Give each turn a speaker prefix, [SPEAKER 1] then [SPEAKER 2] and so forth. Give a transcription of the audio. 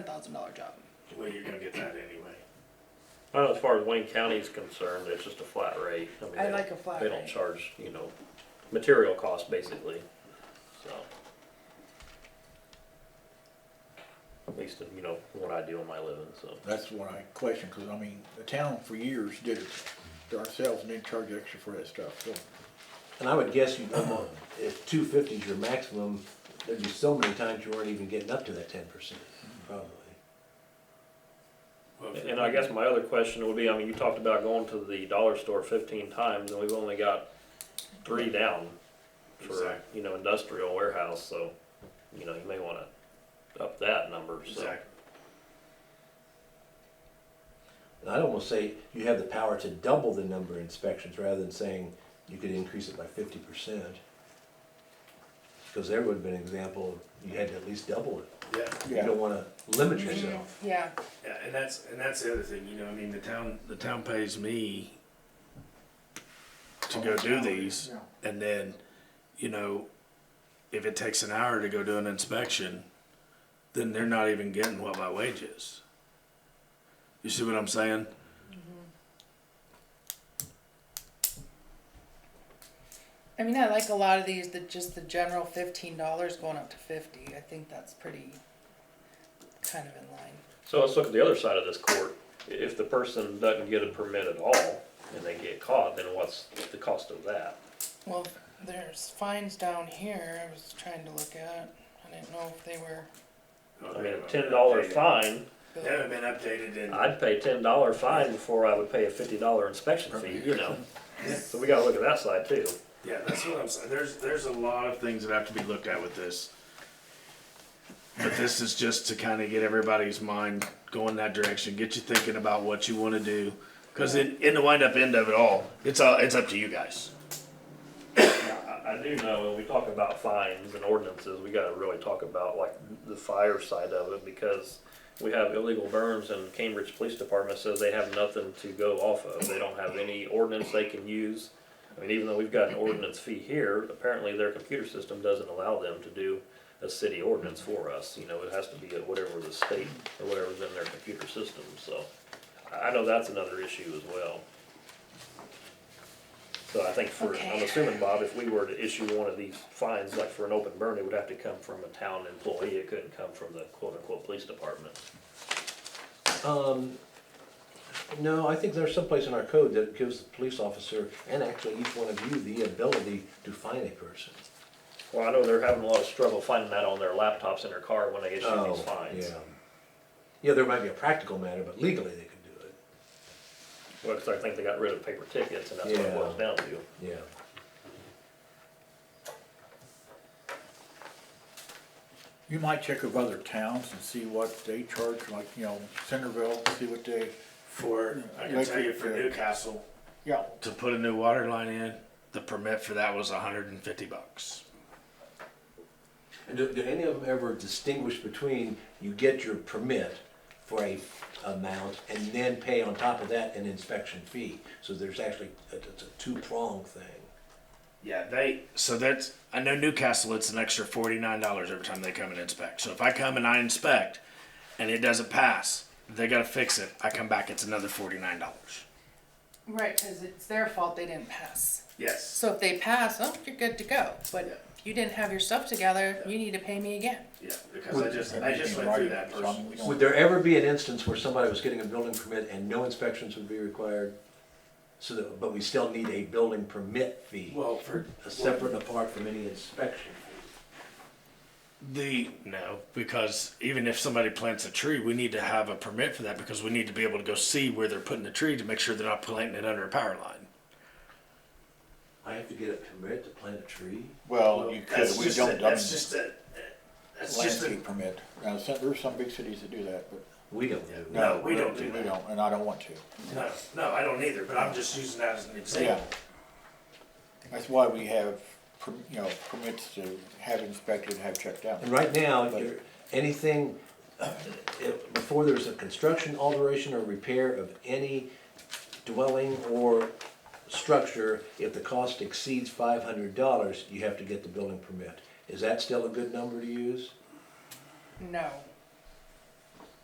[SPEAKER 1] thousand dollar job.
[SPEAKER 2] Well, you're gonna get that anyway.
[SPEAKER 3] Well, as far as Wayne County is concerned, it's just a flat rate. mean,
[SPEAKER 1] I
[SPEAKER 3] they
[SPEAKER 1] like
[SPEAKER 3] don't-
[SPEAKER 1] a flat
[SPEAKER 3] They don't
[SPEAKER 1] rate.
[SPEAKER 3] charge, you know, material costs basically, so. At least, you know, what I do in my living, so.
[SPEAKER 4] That's what I question, because I mean, the town for years did it to ourselves and didn't charge extra for that stuff, so.
[SPEAKER 5] And I would guess you, if two fifty is your maximum, there'd be so many times you weren't even getting up to that ten percent, probably.
[SPEAKER 2] Well, if-
[SPEAKER 3] And I guess my other question would be, I mean, you talked about going to the dollar store fifteen times and we've only got three down for,
[SPEAKER 2] Exactly.
[SPEAKER 3] you know, industrial warehouse, so, you know, you may wanna up that number, so.
[SPEAKER 2] Exactly.
[SPEAKER 5] And I'd almost say you have the power to double the number of inspections rather than saying you could increase it by fifty percent. Because there would have been an example, you had to at least double it.
[SPEAKER 2] Yeah,
[SPEAKER 5] You
[SPEAKER 4] Yeah.
[SPEAKER 5] don't wanna limit yourself.
[SPEAKER 1] Yeah,
[SPEAKER 2] yeah, and that's, and that's the other thing, you know, I mean, the town, the town pays me to go do these,
[SPEAKER 4] Yeah.
[SPEAKER 2] and then, you know, if it takes an hour to go do an inspection, then they're not even getting what my wage is. You see what I'm saying?
[SPEAKER 1] I mean, I like a lot of these. That just the general fifteen dollars going up to fifty. I think that's pretty kind of in line.
[SPEAKER 3] So let's look at the other side of this court. I- If the person doesn't get a permit at all and they get caught, then what's the cost of that?
[SPEAKER 1] Well, there's fines down here. I was trying to look at. I didn't know if they were.
[SPEAKER 3] I mean, a ten dollar fine,
[SPEAKER 2] They haven't been updated in,
[SPEAKER 3] I'd pay ten dollar fine before I would pay a fifty dollar inspection fee, you know? So we gotta look at that side too.
[SPEAKER 2] yeah, that's what I'm saying, there's, there's a lot of things that have to be looked at with this. But this is just to kind of get everybody's mind going that direction, get you thinking about what you want to do. Because in, in the wind up end of it all, it's all, it's up to you guys.
[SPEAKER 3] I, I do know when we talk about fines and ordinances, we gotta really talk about like the fire side of it because we have illegal burns and Cambridge Police Department says they have nothing to go off of. They don't have any ordinance they can use. I mean, even though we've got an ordinance fee here, apparently their computer system doesn't allow them to do a city ordinance for us. You know, it has to be at whatever the state or whatever's in their computer system, so. I I know that's another issue as well. So I think for, I'm
[SPEAKER 1] Okay.
[SPEAKER 3] assuming, Bob, if we were to issue one of these fines, like for an open burn, it would have to come from a town employee. It couldn't come from the quote-unquote police department.
[SPEAKER 5] Um, no, I think there's someplace in our code that gives the police officer and actually each one of you the ability to fine a person.
[SPEAKER 3] Well, I know they're having a lot of struggle finding that on their laptops in their car when they issue these fines.
[SPEAKER 5] Oh, Yeah. Yeah, there might be a practical matter, but legally they could do it.
[SPEAKER 3] Well, 'cause I think they got rid of paper tickets and that's what it
[SPEAKER 5] Yeah.
[SPEAKER 3] boils down to.
[SPEAKER 5] Yeah.
[SPEAKER 4] You might check with other towns and see what they charge, like, you know, Centerville, see what they,
[SPEAKER 2] For, I can
[SPEAKER 4] Like
[SPEAKER 2] tell you
[SPEAKER 4] the-
[SPEAKER 2] for
[SPEAKER 4] the-
[SPEAKER 2] Newcastle,
[SPEAKER 4] yeah,
[SPEAKER 2] to put a new water line in, the permit for that was hundred and fifty bucks.
[SPEAKER 5] And do, do any of them ever distinguish between you get your permit for a amount and then pay on top of that an inspection fee? So there's actually, uh, it's a two-pronged thing.
[SPEAKER 2] Yeah, they, so that's, I know Newcastle, it's an extra forty-nine dollars every time they come and inspect. So if I come and I inspect and it doesn't pass, they gotta fix it. I come back, it's another forty-nine dollars.
[SPEAKER 1] Right, because it's their fault they didn't pass.
[SPEAKER 2] Yes.
[SPEAKER 1] So if they pass, oh, you're good to go. But if you didn't have your stuff together, you need to pay me again.
[SPEAKER 2] Yeah, because I just, I just went through that personally.
[SPEAKER 5] Would there ever be an instance where somebody was getting a building permit and no inspections would be required? So that, but we still need a building permit fee,
[SPEAKER 2] Well, for
[SPEAKER 5] a separate and apart from any inspection fee.
[SPEAKER 2] the, no, because even if somebody plants a tree, we need to have a permit for that because we need to be able to go see where they're putting the tree to make sure they're not planting it under a power line.
[SPEAKER 5] I have to get a permit to plant a tree?
[SPEAKER 4] Well, you could,
[SPEAKER 2] That's
[SPEAKER 4] we
[SPEAKER 2] just a-
[SPEAKER 4] don't, I mean,
[SPEAKER 2] That's just a, that's just a,
[SPEAKER 4] landscape permit, now, some- there's some big cities that do that, but.
[SPEAKER 5] We don't do that.
[SPEAKER 2] No, we don't do
[SPEAKER 4] We
[SPEAKER 2] that.
[SPEAKER 4] don't, and I don't want to,
[SPEAKER 2] no, no, I don't either, but I'm just using that as an
[SPEAKER 4] yeah.
[SPEAKER 2] example.
[SPEAKER 4] That's why we have, per- you know, permits to have inspected, have checked out.
[SPEAKER 5] And right now, if you're, anything, if- before there's a construction alteration or repair of any dwelling or structure, if the cost exceeds five hundred dollars, you have to get the building permit. Is that still a good number to use?
[SPEAKER 1] No.